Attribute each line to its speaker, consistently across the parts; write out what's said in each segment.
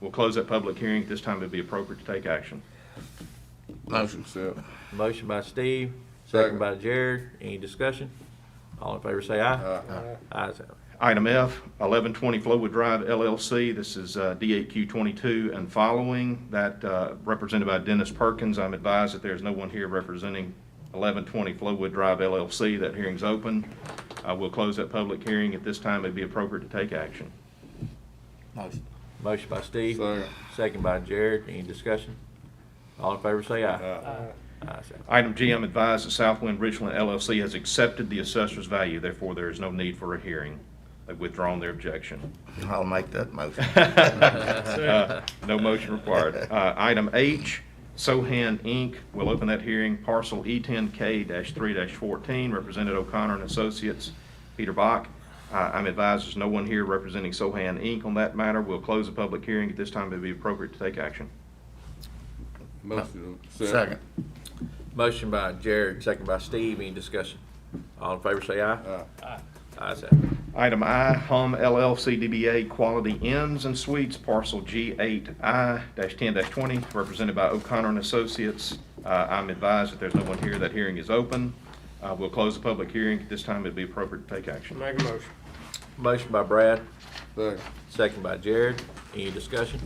Speaker 1: We'll close that public hearing. At this time, it'd be appropriate to take action.
Speaker 2: Motion. Accept.
Speaker 3: Motion by Steve,
Speaker 2: Second.
Speaker 3: second by Jared. Any discussion? All in favor say aye.
Speaker 2: Aye.
Speaker 3: Ayes have it.
Speaker 1: Item F, 1120 Flowood Drive LLC. This is uh, DAQ 22 and following. That uh, represented by Dennis Perkins. I'm advised that there's no one here representing 1120 Flowood Drive LLC. That hearing's open. Uh, We'll close that public hearing. At this time, it'd be appropriate to take action.
Speaker 2: Motion.
Speaker 3: Motion by Steve.
Speaker 2: Second.
Speaker 3: Second by Jared. Any discussion? All in favor say aye.
Speaker 2: Aye.
Speaker 3: Ayes have it.
Speaker 1: Item G, I'm advised that Southwind Richland LLC has accepted the assessor's value. Therefore, there is no need for a hearing. They've withdrawn their objection.
Speaker 2: I'll make that motion.
Speaker 1: Uh, No motion required. Uh, Item H, Sohan Inc. will open that hearing, parcel E E10K-3-14, Represented O'Connor and Associates, Peter Bach. Uh, I'm advised there's no one here representing Sohan Inc. on that matter. We'll close the public hearing. At this time, it'd be appropriate to take action.
Speaker 2: Motion. Second.
Speaker 3: Motion by Jared, second by Steve. Any discussion? All in favor say aye.
Speaker 2: Aye.
Speaker 3: Ayes have it.
Speaker 1: Item I, Hum LLC DBA Quality Inns and Suites, parcel G8I-10-20, represented by O'Connor and Associates. Uh, I'm advised that there's no one here, that hearing is open. Uh, We'll close the public hearing, at this time it'd be appropriate to take action.
Speaker 4: Make a motion.
Speaker 3: Motion by Brad,
Speaker 2: Second.
Speaker 3: second by Jared. Any discussion?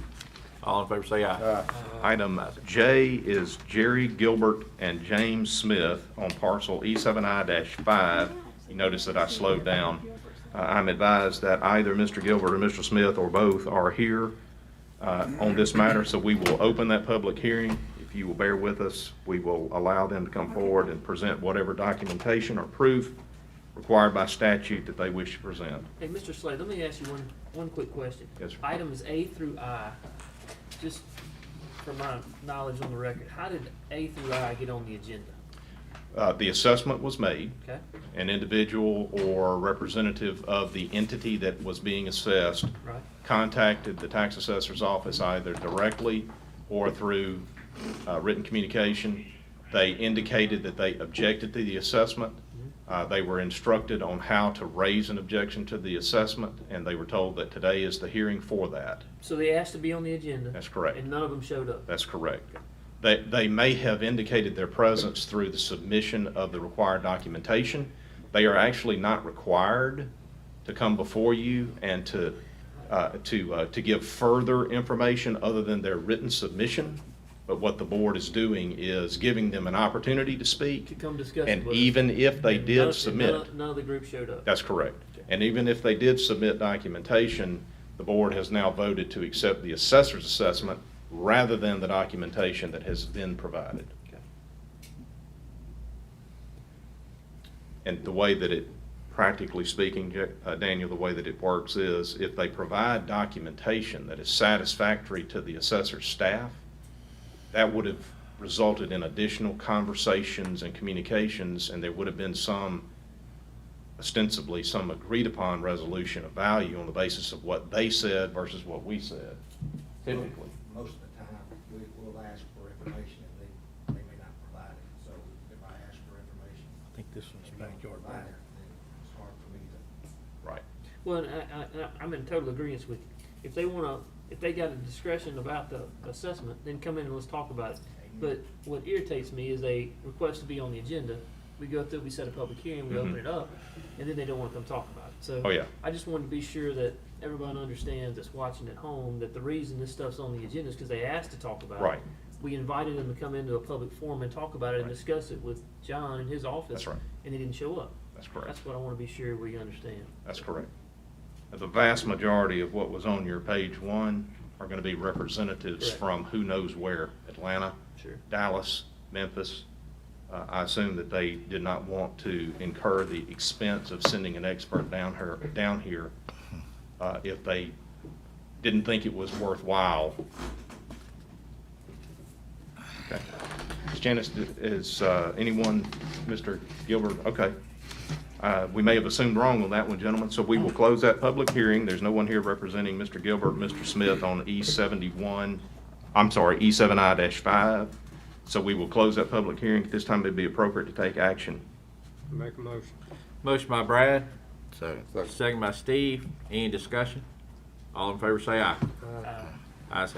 Speaker 3: All in favor say aye.
Speaker 1: Item J is Jerry Gilbert and James Smith on parcel E E7I-5. You notice that I slowed down. Uh, I'm advised that either Mr. Gilbert or Mr. Smith or both are here uh, on this matter, so we will open that public hearing. If you will bear with us, we will allow them to come forward and present whatever documentation or proof required by statute that they wish to present.
Speaker 5: Hey, Mr. Slade, let me ask you one, one quick question.
Speaker 1: Yes, sir.
Speaker 5: Items A through I, just for my knowledge on the record, how did A through I get on the agenda?
Speaker 1: Uh, The assessment was made.
Speaker 5: Okay?
Speaker 1: an individual or representative of the entity that was being assessed
Speaker 5: Right.
Speaker 1: contacted the tax assessor's office either directly or through uh, written communication. They indicated that they objected to the assessment.
Speaker 5: Mm-hmm.
Speaker 1: Uh, They were instructed on how to raise an objection to the assessment, and they were told that today is the hearing for that.
Speaker 5: So they asked to be on the agenda.
Speaker 1: That's correct.
Speaker 5: And none of them showed up.
Speaker 1: That's correct. They, they may have indicated their presence through the submission of the required documentation. They are actually not required to come before you and to, uh, to, uh, to give further information other than their written submission. But what the board is doing is giving them an opportunity to
Speaker 5: To
Speaker 1: speak,
Speaker 5: come discuss. it
Speaker 1: and
Speaker 5: with us.
Speaker 1: even if they
Speaker 5: And none-
Speaker 1: did
Speaker 5: and
Speaker 1: submit.
Speaker 5: none- None of the group showed up.
Speaker 1: That's correct. And even if they did submit documentation, the board has now voted to accept the assessor's assessment rather than the documentation that has been provided.
Speaker 5: Okay.
Speaker 1: And the way that it, practically speaking, Ja- uh, Daniel, the way that it works is if they provide documentation that is satisfactory to the assessor's staff, that would have resulted in additional conversations and communications, and there would have been some, ostensibly, some agreed-upon resolution of value on the basis of what they said versus what we said, typically.
Speaker 6: Most of the time, we will ask for information and they, they may not provide it. So if I ask for information. I think this one's backyard. Provide it, then it's hard for me to.
Speaker 1: Right.
Speaker 5: Well, and I, I, and I- I'm in total agreement with you. If they wanna, if they got a discretion about the assessment, then come in and let's talk about it. But what irritates me is they request to be on the agenda, we go through, we set a public hearing, we open
Speaker 1: Mhm.
Speaker 5: it up, and then they don't wanna come talk about it, so.
Speaker 1: Oh, yeah.
Speaker 5: I just wanted to be sure that everyone understands that's watching at home, that the reason this stuff's on the agenda is because they asked to talk about it.
Speaker 1: Right.
Speaker 5: We invited them to come into a public forum and talk about it and
Speaker 1: Right.
Speaker 5: discuss it with John in his office.
Speaker 1: That's right.
Speaker 5: And they didn't show up.
Speaker 1: That's correct.
Speaker 5: That's what I wanna be sure we understand.
Speaker 1: That's correct. The vast majority of what was on your page one are going to be representatives
Speaker 5: Correct.
Speaker 1: from who knows where, Atlanta,
Speaker 5: Sure.
Speaker 1: Dallas, Memphis. Uh, I assume that they did not want to incur the expense of sending an expert down her, down here uh, if they didn't think it was worthwhile. Okay. Ms. Janice, d- is uh, anyone, Mr. Gilbert, okay. Uh, We may have assumed wrong on that one, gentlemen, so we will close that public hearing. There's no one here representing Mr. Gilbert, Mr. Smith on E seventy-one, I'm sorry, E seven I five. So we will close that public hearing. At this time, it'd be appropriate to take action.
Speaker 4: Make a motion.
Speaker 3: Motion by Brad,
Speaker 2: Second.
Speaker 3: second by Steve. Any discussion? All in favor say aye. Ayes